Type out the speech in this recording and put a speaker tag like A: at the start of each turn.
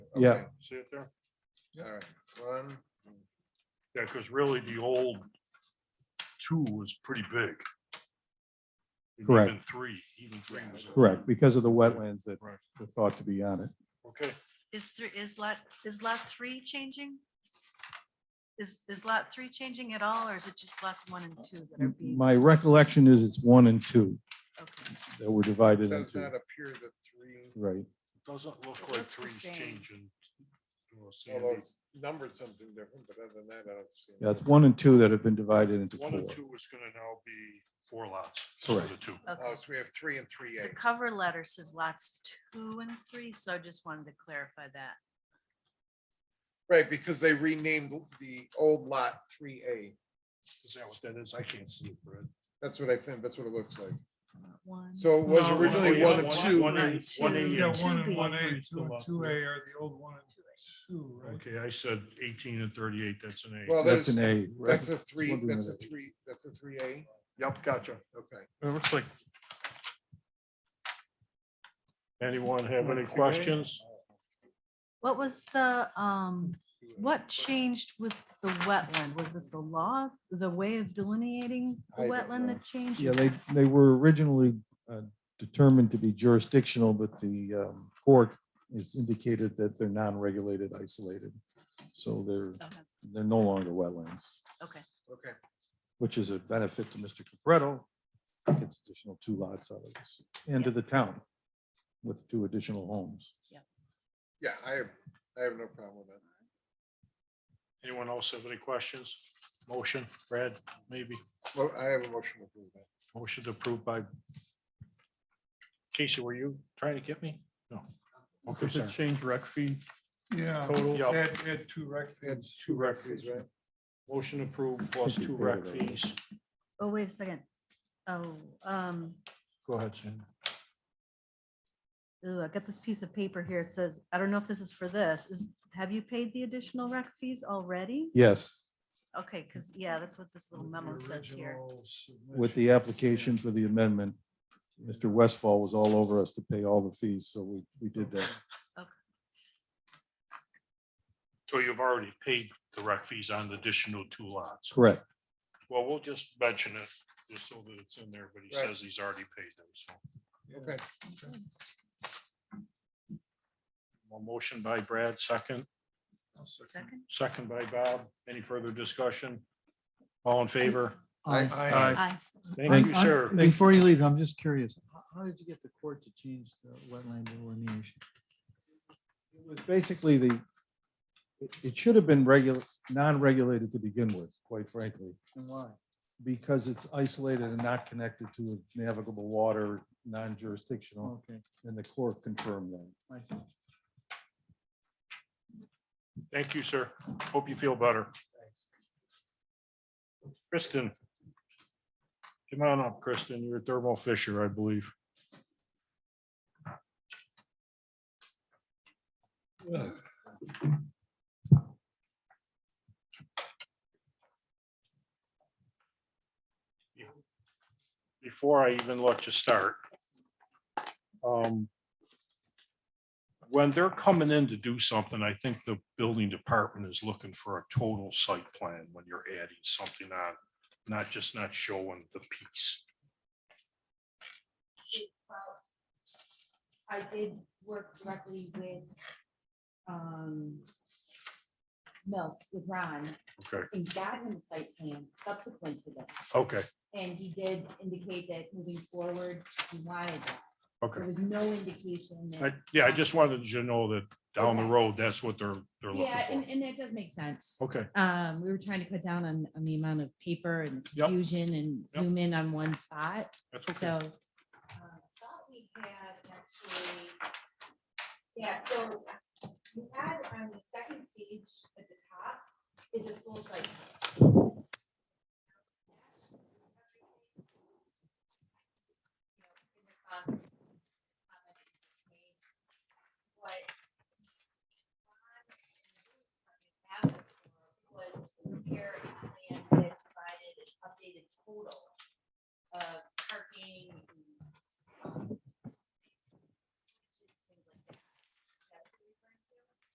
A: Yeah.
B: Okay,
C: See it there?
B: All right, one,
C: Yeah, because really the old two was pretty big. And
A: Correct.
C: Even three, even three was.
A: Correct, because of the wetlands that
C: Right.
A: were thought to be on it.
C: Okay,
D: Is three, is lot, is lot three changing? Is, is lot three changing at all, or is it just lots one and two that are being?
A: My recollection is it's one and two
D: okay.
A: that were divided
B: does
A: into,
B: not appear that three,
A: right,
C: doesn't look
D: It
C: like
D: looks the
C: three's
D: same.
C: changing. to a
B: although
C: Sandy.
B: it's numbered something different, but other than that, I don't see.
A: yeah, it's one and two that have been divided into
C: One and
A: four.
C: two is gonna now be four lots. instead of The two.
B: Oh,
D: Okay.
B: so we have three and three
D: The
B: A.
D: cover letter says lots two and three, so I just wanted to clarify that.
B: Right, because they renamed the old lot three A.
C: Is that what that is? I can't see it, Brad.
B: That's what I think, that's what it looks like.
D: One.
B: So it was
C: No,
B: originally
C: yeah,
B: one and
C: Oh, one-
B: two.
C: one and-
D: Right,
C: one
D: two,
C: and
D: you
E: Yeah,
D: got
C: eight.
E: one
D: two
E: and one
D: B.
E: A,
C: Three
E: two
C: still
E: and
C: up
E: two A
C: there.
E: are the old one and two, right?
C: Okay, I said eighteen and thirty-eight, that's an
B: Well,
C: A.
A: That's
B: there's,
A: an A. right?
B: that's a three,
A: Wondering
B: that's a
A: about that.
B: three, that's a three A.
C: Yep, gotcha.
B: Okay.
E: It looks like.
C: Anyone have any questions?
D: What was the, um, what changed with the wetland? Was it the law, the way of delineating the
B: I don't
D: wetland
B: know.
D: that changed?
A: Yeah, they, they were originally uh, determined to be jurisdictional, but the um, court has indicated that they're non-regulated, isolated. So they're,
D: Okay,
A: they're no longer wetlands,
D: Okay,
B: Okay,
A: which is a benefit to Mr. Capretto. Gets additional two lots out of this, and to the town with two additional homes.
B: yeah, I have, I have no problem with that.
C: Anyone else have any questions? Motion, Brad, maybe?
B: Well, I have a motion to approve that.
C: Motion approved by. Casey, were you trying to get me? No. Okay,
F: Does it
C: sorry.
F: change rec fee?
E: Yeah,
C: Total.
E: add, add two rec fields.
C: two rec fees, right? Motion approved plus two rec fees.
D: oh, wait a second. Oh, um,
C: Go ahead, Sam.
D: Ooh, I got this piece of paper here. It says, I don't know if this is for this, is, have you paid the additional rec fees already?
A: Yes,
D: Okay, because, yeah, that's what this little memo says here.
A: with the application for the amendment, Mr. Westfall was all over us to pay all the fees, so we, we did that.
C: So you've already paid the rec fees on the additional two lots.
A: Correct.
C: Well, we'll just mention it just so that it's in there, but he
B: Right.
C: says he's already paid them. So
B: Okay,
C: Well, motion by Brad, second,
D: Second?
C: second by Bob. Any further discussion? All in favor?
B: Aye.
D: Aye.
C: Thank you,
G: I'm-
C: sir.
G: I'm- Before you leave, I'm just curious, h- how did you get the court to change the wetland delineation?
A: It was basically the, it, it should have been regular, non-regulated to begin with, quite frankly,
G: And why?
A: because it's isolated and not connected to navigable water, non-jurisdictional,
G: Okay,
A: and the court confirmed that.
G: I see.
C: Thank you, sir. Hope you feel better. Kristen. Come on up, Kristen. You're a thermal fisher, I believe. Before I even let you start. um, when they're coming in to do something, I think the building department is looking for a total site plan when you're adding something on, not just not showing the piece.
H: I did work directly with, um, Mills, with Ron,
C: Okay, Oh.
H: and got him a site plan subsequent to this.
C: okay,
H: And he did indicate that moving forward, he wanted that. There
C: okay.
H: was no indication that.
C: I- Yeah, I just wanted you to know that down the road, that's what they're, they're
H: Yeah, and,
C: looking
H: and that does make sense.
C: for. Okay,
H: Um, we were trying to cut down on, on the amount of paper and
C: Yep.
H: confusion and
C: Yep.
H: zoom in on one spot.
C: that's okay.
H: So. um, Thought we had actually, yeah, so we had on the second page at the top is a full site